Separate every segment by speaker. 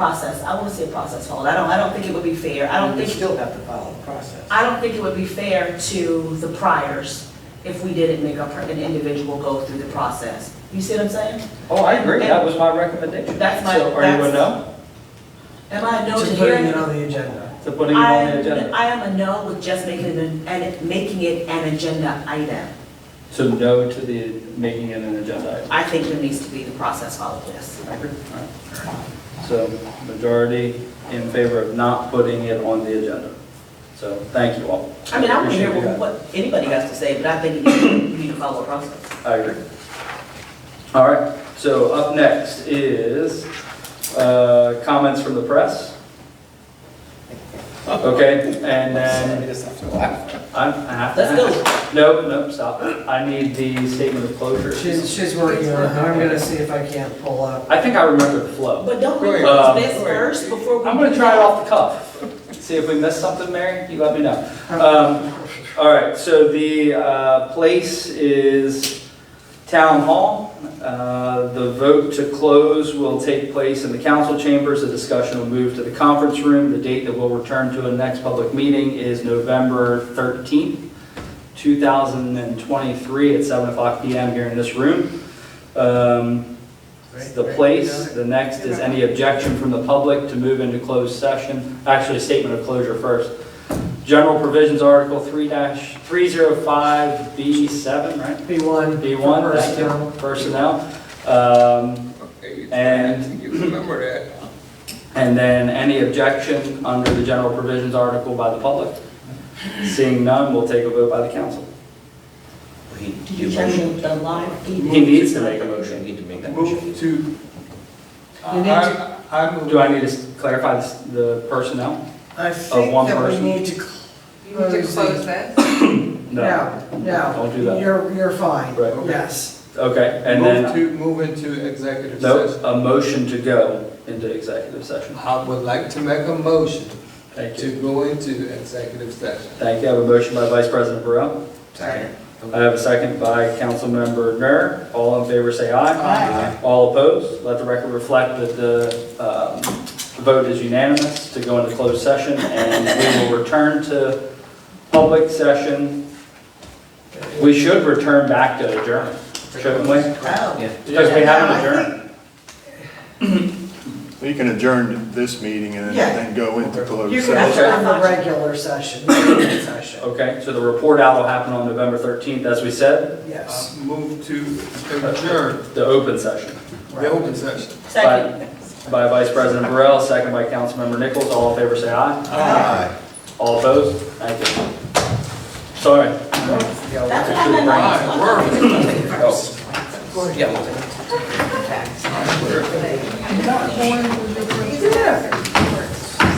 Speaker 1: process, I wanna see a process hold, I don't, I don't think it would be fair, I don't
Speaker 2: You
Speaker 1: think,
Speaker 2: still have to follow the process.
Speaker 1: I don't think it would be fair to the priors if we didn't make a per- an individual go through the process. You see what I'm saying?
Speaker 3: Oh, I agree, that was my recommendation.
Speaker 1: That's my-
Speaker 3: So, Are you a no
Speaker 1: Am I a no to
Speaker 4: To putting it
Speaker 1: hearing?
Speaker 4: on the agenda.
Speaker 3: to putting it on the
Speaker 1: I'm-
Speaker 3: agenda?
Speaker 1: I am a no with just making it, an- and making it an agenda item.
Speaker 3: So no to the, making it an agenda item?
Speaker 1: I think there needs to be the process followed, yes.
Speaker 3: I agree. All right. So majority in favor of not putting it on the agenda. So thank you all.
Speaker 1: I mean, I want to hear
Speaker 3: Appreciate you
Speaker 1: what- what anybody has to say, but I think you need to follow a process.
Speaker 3: guys. I agree. All right, so up next is uh, comments from the press. Okay, and then I I have to.
Speaker 1: Let's go.
Speaker 3: No, no, stop. I need the statement of closure.
Speaker 4: She's, she's working on it. I'm gonna see if I can't pull up.
Speaker 3: I think I remember the flow.
Speaker 1: But don't we
Speaker 3: Right.
Speaker 1: close
Speaker 3: Um,
Speaker 1: this first before we?
Speaker 3: I'm gonna
Speaker 1: do
Speaker 3: try it
Speaker 1: that?
Speaker 3: off the cuff. See if we missed something, Mary, you let me know. Um, all right, so the, uh, place is Town Hall. Uh, the vote to close will take place in the council chambers. The discussion will move to the conference room. The date that we'll return to a next public meeting is November thirteenth, two thousand and twenty-three at seven o'clock PM here in this room. Um, the place. The next is any objection from the public to move into closed session. Actually, statement of closure first. General provisions, Article 3 305B7, right?
Speaker 4: B one.
Speaker 3: B1, thank you, personnel. Um, And-
Speaker 5: And you remember that.
Speaker 3: And then any objection under the general provisions article by the public? Seeing none, we'll take a vote by the council.
Speaker 1: Do you change the live feed?
Speaker 3: He needs to make a motion.
Speaker 5: need to make that
Speaker 2: Move
Speaker 5: motion.
Speaker 2: to,
Speaker 4: You need
Speaker 2: I, I move.
Speaker 3: Do I need to clarify this- the personnel?
Speaker 4: I think
Speaker 3: one
Speaker 4: that we
Speaker 3: person.
Speaker 4: need to
Speaker 6: You need to
Speaker 4: close.
Speaker 6: close
Speaker 4: the-
Speaker 6: that.
Speaker 4: No, no.
Speaker 3: Don't do that.
Speaker 4: You're, you're fine.
Speaker 3: Right.
Speaker 4: Yes.
Speaker 3: Okay, and then.
Speaker 2: Move to, move into executive
Speaker 3: No,
Speaker 2: session.
Speaker 3: a motion to go into executive session.
Speaker 2: I would like to make a motion
Speaker 3: Thank you.
Speaker 2: to go into executive session.
Speaker 3: Thank you. I have a motion by Vice President Burrell.
Speaker 5: Second.
Speaker 3: I have a second by Councilmember Nur. All in favor, say aye. Aye. All opposed? Let the record reflect that the um, vote is unanimous to go into closed session, and we will return to public session. We should return back to adjourn, shouldn't we?
Speaker 1: Oh.
Speaker 3: Because we haven't adjourned.
Speaker 7: You can adjourn this meeting and
Speaker 4: Yeah.
Speaker 7: then go into
Speaker 4: You
Speaker 7: closed
Speaker 4: can
Speaker 7: session.
Speaker 3: Okay.
Speaker 4: adjourn the regular session, the regular session.
Speaker 3: Okay, so the report out will happen on November 13th, as we said,
Speaker 4: Yes.
Speaker 2: I Uh, Move to adjourn
Speaker 3: the open session.
Speaker 2: the open session.
Speaker 1: Second.
Speaker 3: By Vice President Burrell, second by Councilmember Nichols, all in favor say aye.
Speaker 2: Aye.
Speaker 3: All opposed? Thank you. Sorry.
Speaker 2: Um,
Speaker 1: That's what I'm
Speaker 2: Aye,
Speaker 1: like.
Speaker 2: word.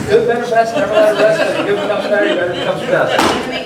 Speaker 3: Good, better, best, never let it rest, good becomes better, better becomes best.
Speaker 6: Make